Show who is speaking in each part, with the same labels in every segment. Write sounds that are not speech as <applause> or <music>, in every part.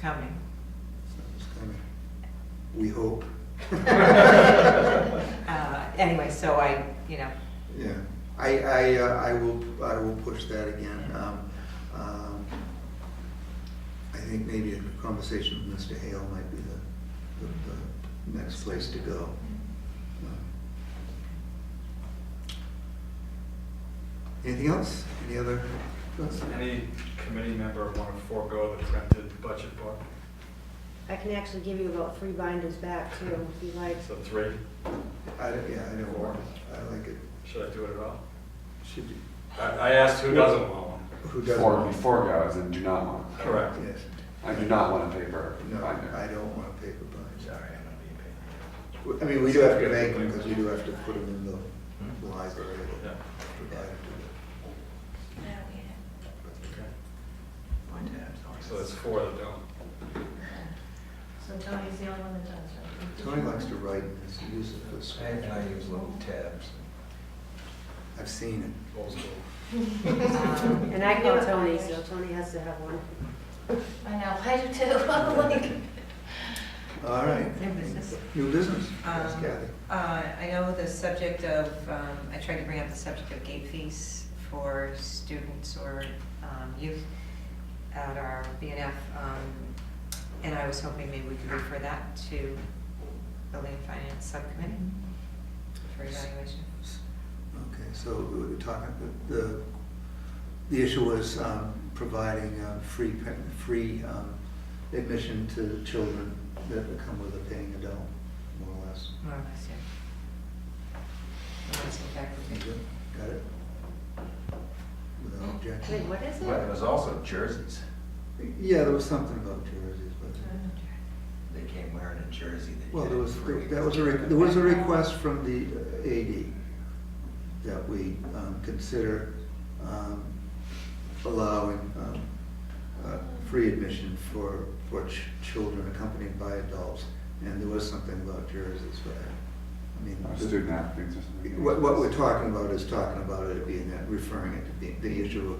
Speaker 1: coming.
Speaker 2: It's coming. We hope.
Speaker 1: Uh, Anyway, so I, you know,
Speaker 2: Yeah, I, I, uh, I will, I will push that again. Um, um, I think maybe a conversation with Mr. Hale might be the, the, the next place to go. Uh, Um, Anything else? Any other? thoughts?
Speaker 3: Any committee member want to forego the printed budget book?
Speaker 4: I can actually give you about three binders back too, if you like.
Speaker 3: So three,
Speaker 2: I, don't- yeah, I know, I like it.
Speaker 3: should I do it at all?
Speaker 2: Should be.
Speaker 3: I, I asked who doesn't want one.
Speaker 2: Who doesn't?
Speaker 5: Four, four guys and do not want,
Speaker 3: Correct.
Speaker 2: Yes.
Speaker 5: I do not want a paper
Speaker 2: No, I
Speaker 5: binder.
Speaker 2: don't want a paper binder.
Speaker 3: Sorry, I'm not being
Speaker 2: I mean, we do have to make them, because we do have to put them in the
Speaker 3: paid.
Speaker 2: library.
Speaker 3: Yeah,
Speaker 2: provided to
Speaker 3: okay. So that's four that don't.
Speaker 6: So Tony's the only one that does,
Speaker 2: the-
Speaker 6: right?
Speaker 2: Tony likes to write, and he's used it for
Speaker 7: I,
Speaker 2: school.
Speaker 7: I use little tabs.
Speaker 2: I've seen it.
Speaker 3: Old school.
Speaker 7: Oh,
Speaker 1: um,
Speaker 4: And I called Tony, so Tony has to have one.
Speaker 6: I know, I do too, <laughs> I'm like,
Speaker 2: All right.
Speaker 1: New business.
Speaker 2: New business, yes,
Speaker 1: Um,
Speaker 2: Kathy.
Speaker 1: uh, I know the subject of, um, I tried to bring up the subject of gate fees for students or um, youth at our BNF, um, and I was hoping maybe we could refer that to Building and Finance Subcommittee for evaluation.
Speaker 2: Okay, so we were talking, the- the, the issue was um, providing uh, free, pa- free um, admission to children that come with a paying adult, more or less.
Speaker 1: More or less, yeah. That's in fact
Speaker 2: You
Speaker 1: what we-
Speaker 2: good? Got it? Without
Speaker 4: Wait,
Speaker 2: objection?
Speaker 4: what is
Speaker 7: But it
Speaker 4: it?
Speaker 7: was also jerseys.
Speaker 2: Yeah, there was something about jerseys, but.
Speaker 7: They came wearing a jersey. that you
Speaker 2: Well, there was,
Speaker 7: didn't free.
Speaker 2: that was a, re- there was a request from the uh, AD that we um, consider um, allowing um, uh, free admission for, for ch- children accompanied by adults. And there was something about jerseys, but, I mean.
Speaker 5: Or
Speaker 2: the-
Speaker 5: Student athletes or something.
Speaker 2: What, what we're talking about is talking about it being that, referring it to the, the issue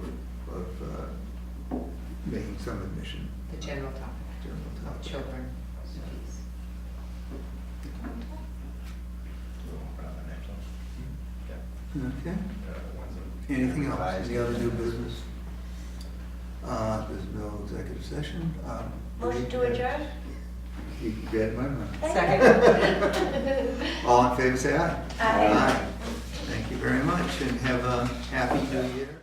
Speaker 2: of, of uh, making some admission.
Speaker 1: The general topic
Speaker 2: General
Speaker 1: of
Speaker 2: topic.
Speaker 1: children fees.
Speaker 7: Put on the next one.
Speaker 3: Yeah,
Speaker 2: Okay.
Speaker 7: Uh,
Speaker 3: yeah, the ones that-
Speaker 2: Anything else, any other new business? Uh, there's no executive session. um,
Speaker 6: Motion to adjourn?
Speaker 2: You can get my money.
Speaker 6: Second.
Speaker 2: <laughs> All in favor, say aye.
Speaker 6: Aye.
Speaker 2: Thank you very much, and have a happy new year.